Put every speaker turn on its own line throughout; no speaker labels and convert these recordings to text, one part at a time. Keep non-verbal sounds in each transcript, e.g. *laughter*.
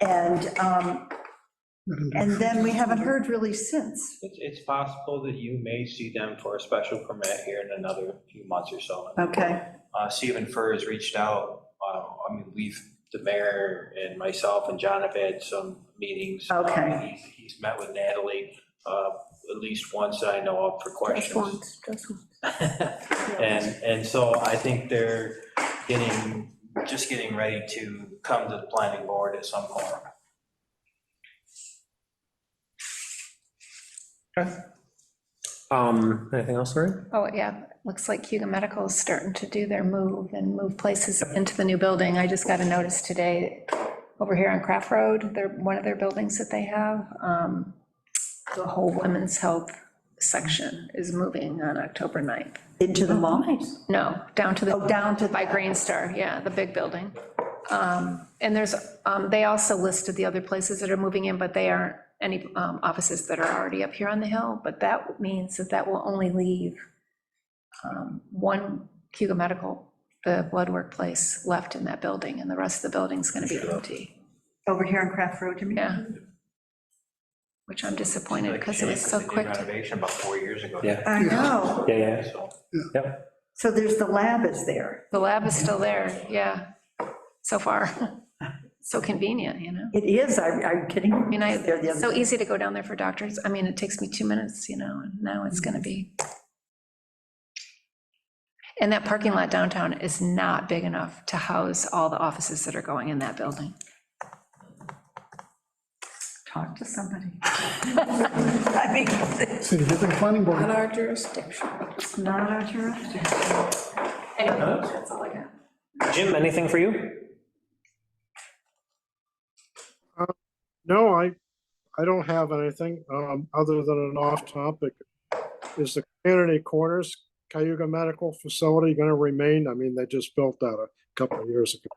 And, um, and then we haven't heard really since.
It's, it's possible that you may see them for a special permit here in another few months or so.
Oh.
Okay,
Uh, Stephen Furr has reached out, uh, I mean, we've, the mayor and myself and John have had some meetings.
Okay.
Uh, He's, he's met with Natalie, uh, at least once that I know of for
Just
questions.
once, just
*laughs*
once.
And, and so I think they're getting, just getting ready to come to the planning board at some point.
Um, anything else, Lori?
Oh, yeah, looks like Hugo Medical is starting to do their move and move places into the new building. I just got a notice today over here on Craft Road, they're, one of their buildings that they have, um, the whole women's health section is moving on October 9th.
into
Oh,
the mall.
No, down to the.
Oh, down to the-
By Green Star, yeah, the big building. Um, And there's, um, they also listed the other places that are moving in, but they aren't any um, offices that are already up here on the hill. But that means that that will only leave um, one Cuba Medical, the blood work place, left in that building, and the rest of the building's going to be empty.
Over here on Craft Road, you mean?
Yeah. Which I'm disappointed because it was so
They did
quick. to-
Renovation about four years ago.
Yeah.
I know.
Yeah, yeah,
So.
yep.
So there's, the lab is there.
The lab is still there, yeah, so far. *laughs* So convenient, you know?
It is, I- I'm kidding.
I mean,
There the
I,
other
so
day.
easy to go down there for doctors. I mean, it takes me two minutes, you know, and now it's gonna be. And that parking lot downtown is not big enough to house all the offices that are going in that building.
Talk to
*laughs*
somebody. I mean, it's
See, get the planning board.
our jurisdiction.
not our jurisdiction.
Anyway, that's all I got.
Jim, anything for you?
No, I, I don't have anything, um, other than an off topic. Is the Kennedy Corners Cayuga Medical Facility gonna remain? I mean, they just built that a couple of years ago.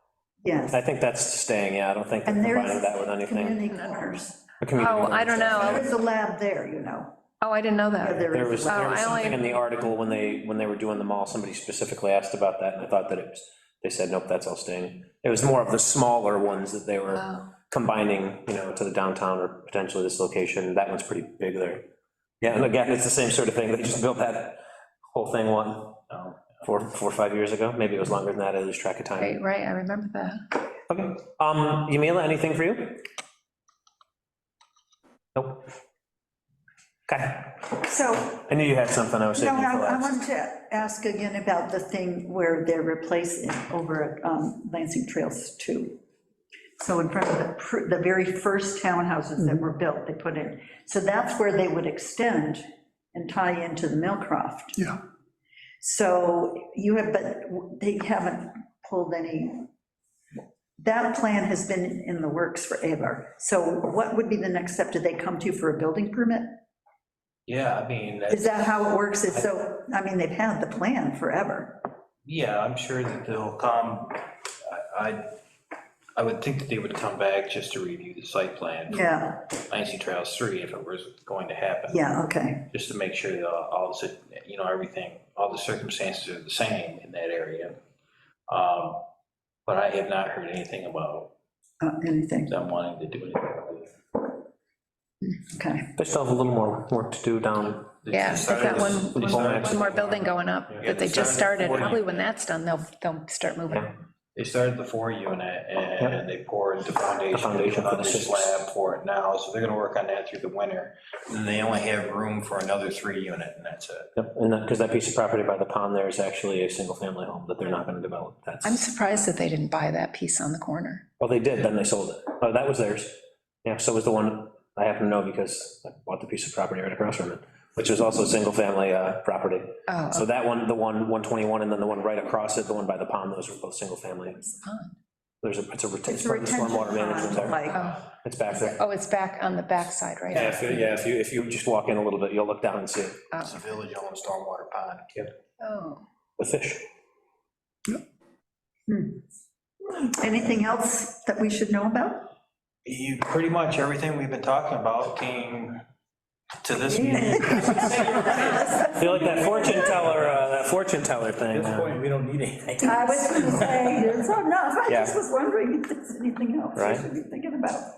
Yes.
I think that's staying, yeah, I don't think they're
And there
combining
is
that with anything.
community corners.
A community
Oh, I
garden.
don't know.
There's a lab there, you know.
Oh, I didn't know that.
There
There
is
was,
a lab.
there was
Oh, I only-
something in the article when they, when they were doing the mall, somebody specifically asked about that, and I thought that it was, they said, nope, that's all staying. It was more of the smaller ones that they were
Oh,
combining, you know, to the downtown or potentially this location, that one's pretty big there. Yeah, and again, it's the same sort of thing, they just built that whole thing one, um, four, four, or five years ago, maybe it was longer than that, I lose track of time.
Oh, Right, right, I remember that.
Okay, um, Yamila, anything for you? Nope. Okay,
Oh,
So
I knew you had something, I was
No,
saving you for
I I
last.
wanted to ask again about the thing where they're replacing over at um, Lansing Trails 2. So in front of the, pr- the very first townhouses that were built, they put in. So that's where they would extend and tie into the Millcroft.
Yeah.
So you have, but they haven't pulled any, that plan has been in the works forever. So what would be the next step? Do they come to you for a building permit?
Yeah, I mean.
Is that how it works? It's so, I mean, they've had the plan forever.
Yeah, I'm sure that they'll come, I- I, I would think that they would come back just to review the site plan. for
Yeah,
Lansing Trails 3 if it was going to happen.
yeah, okay.
Just to make sure that all, the you know, everything, all the circumstances are the same in that area. Um, But I have not heard anything about
Uh, Anything,
them wanting to do anything.
okay.
They still have a little more work to do down,
Yeah, they've got one,
They
one
started-
one more building going up
Yeah,
that they
they
just
started
started.
forty.
Probably when that's done, they'll, they'll start moving.
They started the four unit and they poured the foundation, they
foundation
put
for
on the
the six.
slab for it now, so they're gonna work on that through the winter. And they only have room for another three unit and that's it.
Yep, and that, because that piece of property by the pond there is actually a single-family home that they're not gonna develop,
I'm
that's,
surprised that they didn't buy that piece on the corner.
well, they did, then they sold it, oh, that was theirs. Yeah, so was the one, I happen to know because I bought the piece of property right across from it, which was also a single-family, uh, property.
Oh,
So that one, the one, 121, and then the one right across it, the one by the pond, those were both single-family.
it's on.
There's a, it's a, ret- it's
It's a
part of the
retention
stormwater
pond,
management there,
like,
Oh,
it's back there.
oh, it's back on the backside, right?
Yeah, if, you- yeah, if you, if you just walk in a little bit, you'll look down and see it.
It's a village owned stormwater pond.
Oh,
the fish.
anything else that we should know
*laughs*
about?
You, pretty much everything we've been talking about came to this meeting.
I feel like that fortune teller, uh, that fortune teller thing. uh,
we don't need anything.
I was gonna say, there's enough, I
Yeah.
just was wondering if there's anything else
Right.
we should be thinking about.